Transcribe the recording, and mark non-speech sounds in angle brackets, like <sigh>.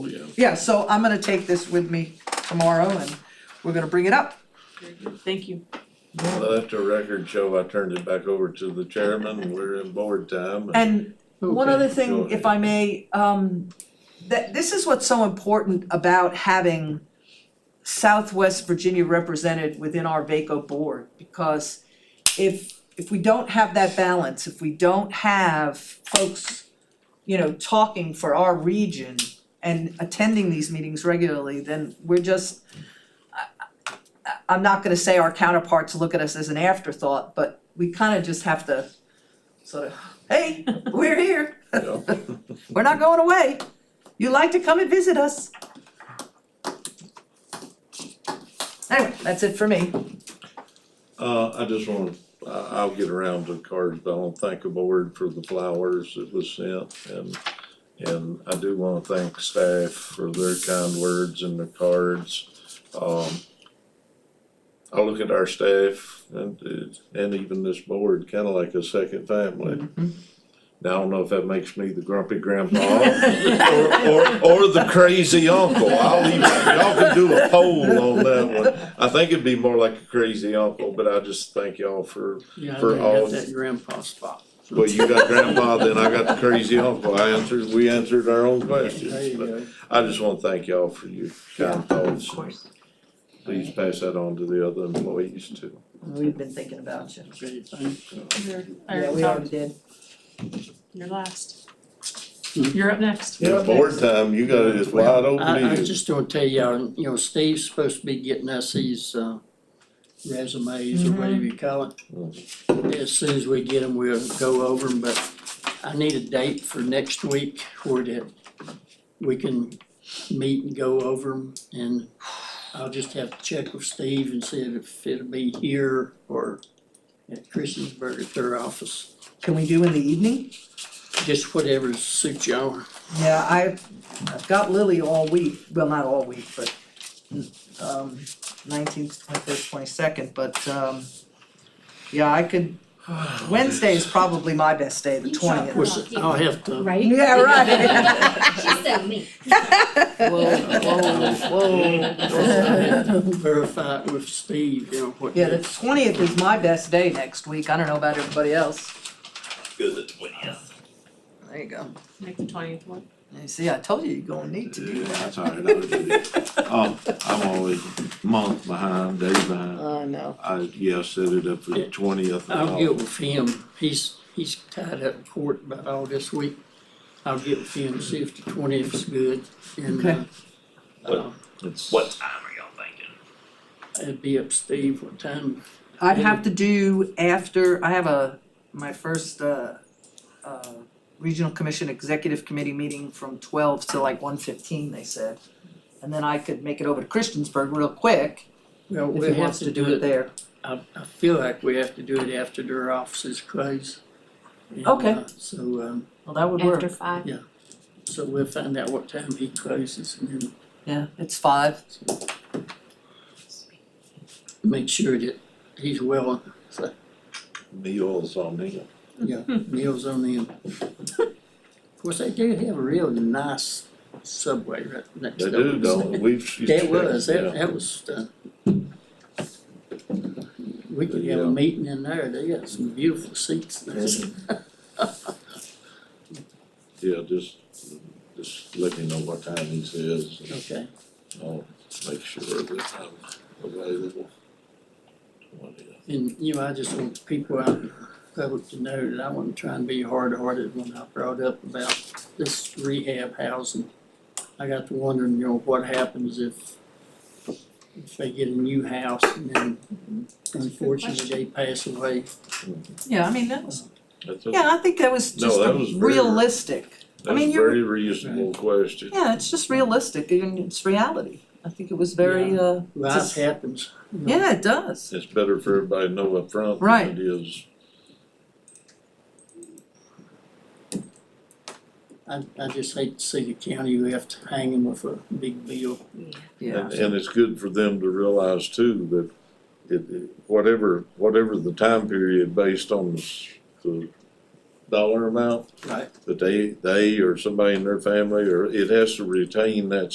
yeah, so I'm gonna take this with me tomorrow and we're gonna bring it up. Thank you. Let the record show I turned it back over to the chairman, we're in board time. And one Okay, other go thing, ahead. if I may, um, that, this is what's so important about having Southwest Virginia represented within our VACO board, because if, if we don't have that balance, if we don't have folks, you know, talking for our region and attending these meetings regularly, then we're just, I, I, I'm not gonna say our counterparts look at us as an afterthought, but we kinda just have to sort of, hey, we're here, Yeah. we're not going away. You like to come and visit us. Anyway, that's it for me. Uh, I just wanna, I, I'll get around to cards, but I wanna thank the board for the flowers that was sent and, and I do wanna thank staff for their kind words and the cards. Um, I look at our staff and, it- and even this board kinda like a second family. Now, I don't know if that makes me the grumpy grandpa or, or, or the crazy uncle. I'll leave, y'all can do a poll on that one. I think it'd be more like a crazy uncle, but I just thank y'all for, Yeah, I For think I all- got that grandpa spot. well, you got grandpa, then I got the crazy uncle. I answered, we answered our own There questions. you But go. I just wanna thank y'all for your kind thoughts. Please pass that on to the other employees too. We've been thinking about you. Great, thank You're, Yeah, we already did. you're last. Hmm. Mhm. You're up next. Yeah, board time, you got it, it's wide you. open I, I to was you. just gonna tell y'all, you know, Steve's supposed to be getting us these, uh, resumes or whatever you call it. As soon as we get them, we'll go over them, but I need a date for next week where that we can meet and go over them. And I'll just have to check with Steve and see if it'll be here or at Christiansburg at their office. Can we do in the evening? Just whatever suits y'all. Yeah, I've, I've got Lily all week, well, not all week, but, um, nineteenth, twenty-first, twenty-second, but, um, yeah, I could, Wednesday is probably my best day, the You shall twentieth. come. Which I'll have to, Right? Yeah, right. She's so mean. whoa, <laughs> whoa, whoa. Verify it with Steve, you know, what. Yeah, the twentieth is my best day next week, I don't know about everybody else. Good, the twentieth. There you go, Make the twentieth one. you see, I told you you're gonna need to do that. That's all right, I'll do it. Um, I'm always month behind, day behind. I know. I, yeah, I set it up for the twentieth. I'll get with him, he's, he's tied up in court about all this week. I'll get with him, see if the twentieth's good and, uh, Okay. uh, What time are y'all thinking? it'd be up Steve what time. I'd have to do after, I have a, my first uh uh Regional Commission Executive Committee meeting from twelve to like one fifteen, they said. And then I could make it over to Christiansburg real quick, Well, if we he have wants to to do it there. I, I feel like we have to do it after their offices close. And, Okay. uh, So, um, Well, that would After work, five. so we'll find out what time he closes and then yeah, it's five, make sure that he's well, Meals on me. Yeah, meals on the end. Of course, they do have a real nice subway right next They door. do, don't, they? we've. That was, Yeah. that, that was, uh, we could have Yeah. a meeting in there, they got some beautiful seats there. Yeah, just, just let me know what time he says, and Okay, I'll make sure that I'm available. and you know, I just want people out in the public to know that I wasn't trying to be hard-hearted when I brought up about this rehab housing. I got to wondering, you know, what happens if, if they get a new house and then unfortunately they pass away. yeah, I mean, that was, That's yeah, I a, think that was No, just that a was very- realistic. I that's mean, a you're- very reasonable question. Yeah, it's just realistic and it's reality. I think it was very, uh, Life Just- happens. yeah, it does. It's better for everybody to know upfront Right. than it is, I, I just hate to see the county left hanging with a big bill. Yeah. and, and it's good for them to realize too that it, it- whatever, whatever the time period based on the, s- the dollar amount. Right. But they, they or somebody in their family, or it has to retain that